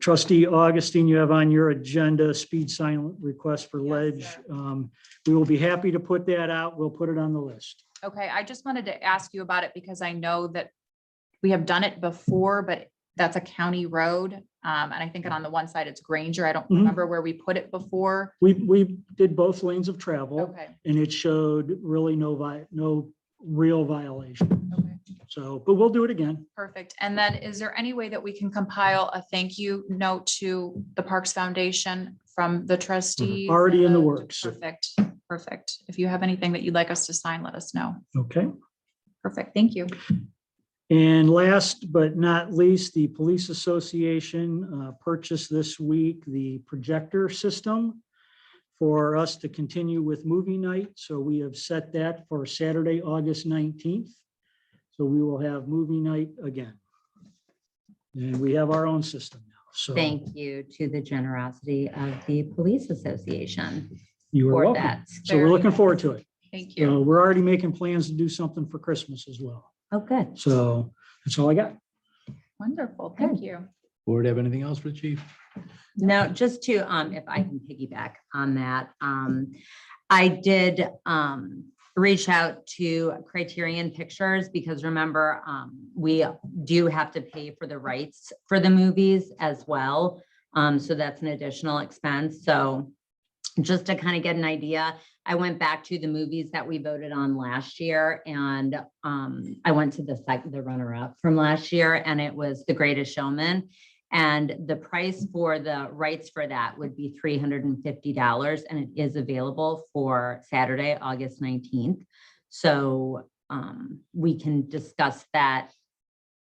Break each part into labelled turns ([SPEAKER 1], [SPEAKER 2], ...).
[SPEAKER 1] Trustee Augustine, you have on your agenda speed sign request for
[SPEAKER 2] Yes,
[SPEAKER 1] ledge.
[SPEAKER 2] sir.
[SPEAKER 1] Um, We will be happy to put that out. We'll put it on the list.
[SPEAKER 2] Okay, I just wanted to ask you about it because I know that we have done it before, but that's a county road. Um, and I think on the one side it's Granger. I don't
[SPEAKER 1] Mhm.
[SPEAKER 2] remember where we put it before.
[SPEAKER 1] We, we did both lanes of travel
[SPEAKER 2] Okay,
[SPEAKER 1] and it showed really no vi, no real violation.
[SPEAKER 2] okay,
[SPEAKER 1] So, but we'll do it again.
[SPEAKER 2] perfect. And then is there any way that we can compile a thank you note to the Parks Foundation from the trustees?
[SPEAKER 1] Mm-hmm. Already in the
[SPEAKER 2] and
[SPEAKER 1] works.
[SPEAKER 2] Perfect, perfect. If you have anything that you'd like us to sign, let us know.
[SPEAKER 1] Okay.
[SPEAKER 2] Perfect, thank you.
[SPEAKER 1] And last but not least, the Police Association uh, purchased this week the projector system for us to continue with movie night. So we have set that for Saturday, August 19th. So we will have movie night again. And we have our own system now. So
[SPEAKER 3] Thank you to the generosity of the Police Association
[SPEAKER 1] you are
[SPEAKER 3] for
[SPEAKER 1] welcome.
[SPEAKER 3] that.
[SPEAKER 1] So we're looking forward to it.
[SPEAKER 2] Thank
[SPEAKER 1] Uh,
[SPEAKER 2] you.
[SPEAKER 1] We're already making plans to do something for Christmas as well.
[SPEAKER 3] Oh, good.
[SPEAKER 1] So that's all I got.
[SPEAKER 2] Wonderful, thank you.
[SPEAKER 4] Board have anything else for the chief?
[SPEAKER 3] No, just to, um, if I can piggyback on that, um, I did, um, reach out to Criterion Pictures because remember, um, we do have to pay for the rights for the movies as well. Um, so that's an additional expense. So just to kind of get an idea, I went back to the movies that we voted on last year and, um, I went to the sec- the runner-up from last year and it was The Greatest Showman. And the price for the rights for that would be three hundred and fifty dollars, and it is available for Saturday, August nineteenth. So um, we can discuss that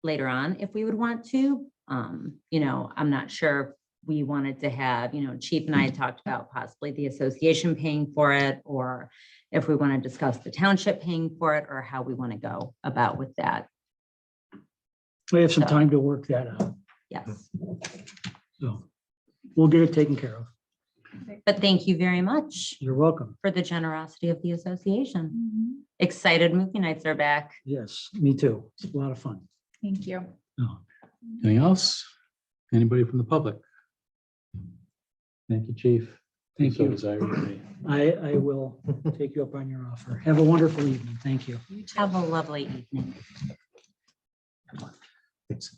[SPEAKER 3] later on if we would want to. Um, you know, I'm not sure if we wanted to have, you know, Chief and I had talked about possibly the association paying for it, or if we want to discuss the township paying for it, or how we want to go about with that.
[SPEAKER 1] We have some
[SPEAKER 3] So-
[SPEAKER 1] time to work that out.
[SPEAKER 3] Yes,
[SPEAKER 1] So we'll get it taken care of.
[SPEAKER 3] but thank you very much.
[SPEAKER 1] You're welcome.
[SPEAKER 3] for the generosity of the association.
[SPEAKER 2] Mm-hmm,
[SPEAKER 3] Excited movie nights are back.
[SPEAKER 1] Yes, me too. It's a lot of fun.
[SPEAKER 2] Thank you.
[SPEAKER 1] No.
[SPEAKER 4] Anything else? Anybody from the public? Thank you, chief.
[SPEAKER 1] Thank
[SPEAKER 4] So
[SPEAKER 1] you.
[SPEAKER 4] desire you may.
[SPEAKER 1] I, I will take you up on your offer. Have a wonderful evening. Thank you.
[SPEAKER 3] Have a lovely evening.
[SPEAKER 5] Thanks.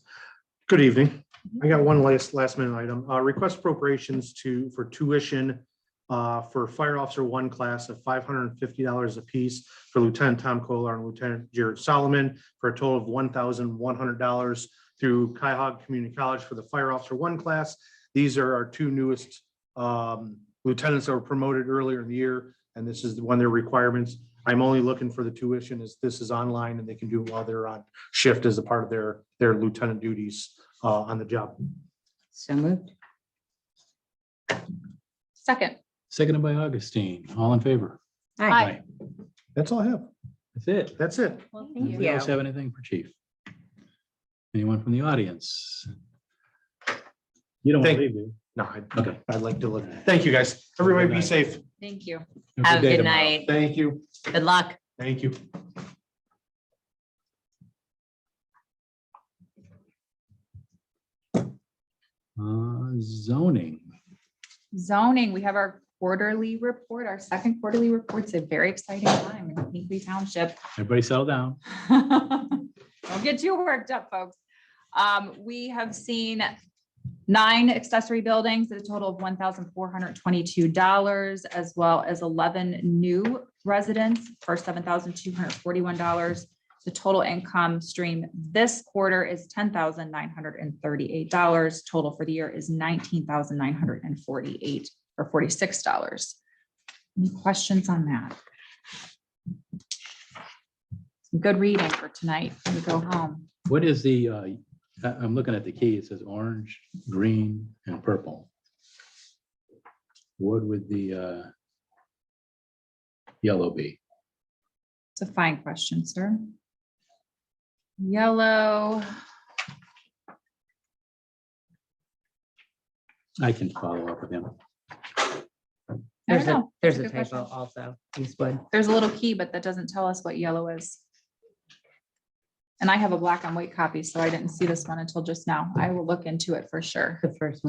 [SPEAKER 5] Good evening. I got one last, last minute item. Uh, Request appropriations to, for tuition uh, for Fire Officer One class of five hundred and fifty dollars apiece for Lieutenant Tom Kolar and Lieutenant Jared Solomon for a total of one thousand one hundred dollars through Cuyahoga Community College for the Fire Officer One class. These are our two newest um, lieutenants that were promoted earlier in the year, and this is one of their requirements. I'm only looking for the tuition as this is online and they can do it while they're on shift as a part of their, their lieutenant duties uh, on the job.
[SPEAKER 3] So moved.
[SPEAKER 2] Second.
[SPEAKER 4] Seconded by Augustine. All in favor?
[SPEAKER 2] Aye.
[SPEAKER 5] That's all I have.
[SPEAKER 4] That's it.
[SPEAKER 5] That's it.
[SPEAKER 2] Well,
[SPEAKER 3] thank
[SPEAKER 4] Anybody else have anything for chief? Anyone from the audience? You don't
[SPEAKER 5] Thank-
[SPEAKER 4] leave, do you?
[SPEAKER 5] No, I'd-
[SPEAKER 4] Okay.
[SPEAKER 5] I'd like to look. Thank you, guys. Everybody be safe.
[SPEAKER 2] Thank you.
[SPEAKER 3] Have a good
[SPEAKER 4] tomorrow.
[SPEAKER 3] night.
[SPEAKER 5] Thank you.
[SPEAKER 3] Good luck.
[SPEAKER 5] Thank you.
[SPEAKER 4] Uh, zoning.
[SPEAKER 2] Zoning, we have our quarterly report, our second quarterly report. It's a very exciting time in Hinkley Township.
[SPEAKER 4] Everybody settle down.
[SPEAKER 2] Don't get too worked up, folks. Um, we have seen nine accessory buildings at a total of one thousand four hundred twenty-two dollars, as well as eleven new residents for seven thousand two hundred forty-one dollars. The total income stream this quarter is ten thousand nine hundred and thirty-eight dollars. Total for the year is nineteen thousand nine hundred and forty-eight or forty-six dollars. Any questions on that? Some good reading for tonight. when We go home.
[SPEAKER 4] What is the, uh, I, I'm looking at the key, it says orange, green, and purple. What would the, uh, yellow be?
[SPEAKER 2] It's a fine question, sir. Yellow,
[SPEAKER 4] I can follow up with him.
[SPEAKER 2] I don't
[SPEAKER 3] There's a,
[SPEAKER 2] know.
[SPEAKER 3] there's
[SPEAKER 2] That's
[SPEAKER 3] a
[SPEAKER 2] a good
[SPEAKER 3] typo
[SPEAKER 2] question.
[SPEAKER 3] also, Eastwood.
[SPEAKER 2] there's a little key, but that doesn't tell us what yellow is. And I have a black and white copy, so I didn't see this one until just now. I will look into it for sure.
[SPEAKER 3] The first one.